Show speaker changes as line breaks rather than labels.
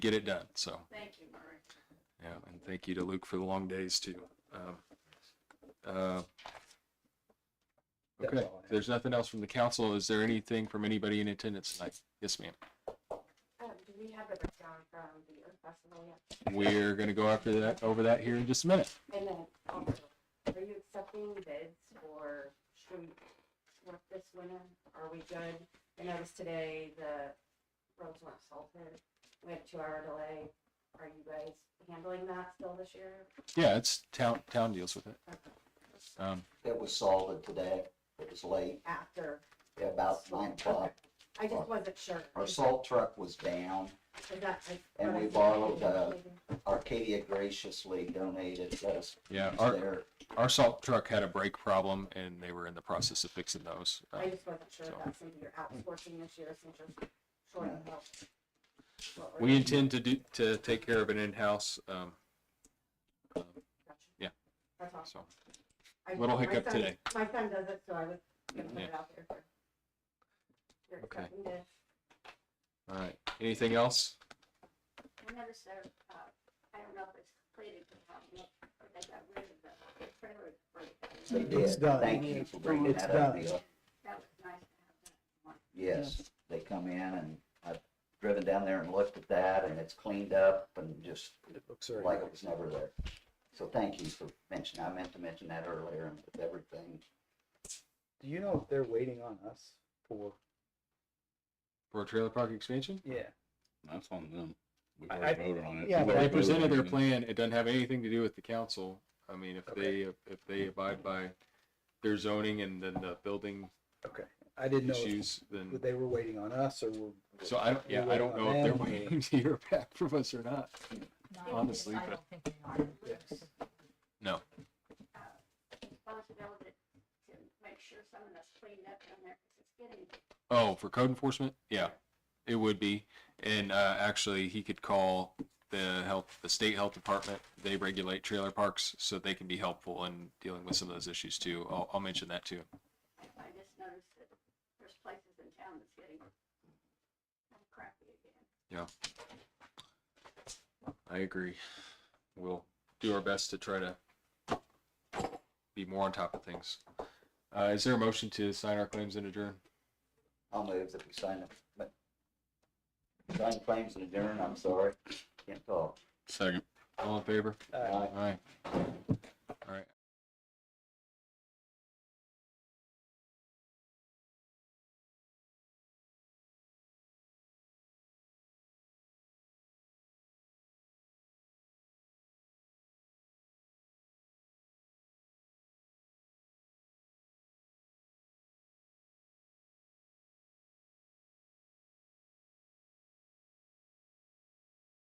get it done. So,
Thank you, Murray.
yeah, and thank you to Luke for the long days too. Um, uh,
That's
Okay,
all I have.
if there's nothing else from the council. Is there anything from anybody in attendance tonight? Yes, ma'am.
Um, do we have the breakdown from the Earth Festival yet?
We're gonna go after that, over that here in just a minute.
And then also, are you accepting bids for street work this winter? Are we good? I noticed today the roads weren't salted. We had a two-hour delay. Are you guys handling that still this year?
Yeah, it's town, town deals with it. Um,
It was salted today. It was late,
After,
at about nine o'clock.
I just wasn't sure.
Our salt truck was down.
Is that- is-
and we borrowed, uh, Arcadia graciously donated us.
yeah, our,
Their,
our salt truck had a brake problem and they were in the process of fixing those.
I
Uh,
just wasn't sure if that's something you're
Mm-hmm.
outsourcing this year since you're short of help. What we're-
We intend to do, to take care of it in-house. Um,
Gotcha.
yeah.
That's awesome.
so,
I-
Little
my
hiccup
son-
today.
My son does it, so I was gonna put it
Yeah.
out there for. You're
Okay.
accepting this.
all right. Anything else?
I noticed there, uh, I don't know if it's completed, but how much- but they got rid of the trailer. for it.
they
It's
did.
done.
Thank you for bringing
It's
that up,
done.
Neil.
That was nice to have that.
Yes, they come in and I've driven down there and looked at that and it's cleaned up and just
It looks
like
very
it was never there. So thank you for mentioning, I meant to mention that earlier and with everything.
Do you know if they're waiting on us for?
For a trailer park expansion?
Yeah.
That's on them. We've
I-
already voted on it.
yeah,
They
I
presented their plan. It doesn't have anything to do with the council. I mean, if they,
Okay.
if they abide by their zoning and then the building
Okay. I didn't know if
issues, then.
they were waiting on us or were.
So I don't, yeah, I don't know if they're waiting to hear back from us or not. Honestly,
I
but-
don't think they are.
Yes.
No.
Responsibility to make sure some of that's cleaned up down there, 'cause it's getting
Oh, for code enforcement? Yeah, it would be. And, uh, actually, he could call the health, the state health department. They regulate trailer parks, so they can be helpful in dealing with some of those issues too. I'll, I'll mention that too.
I, I just noticed that there's places in town that's getting crappy again.
I agree. We'll do our best to try to be more on top of things. Uh, is there a motion to sign our claims and adjourn?
I'll move that we sign it, but sign claims and adjourn, I'm sorry, can't talk.
Second.
All in favor?
Uh,
Aye.
All right. All right.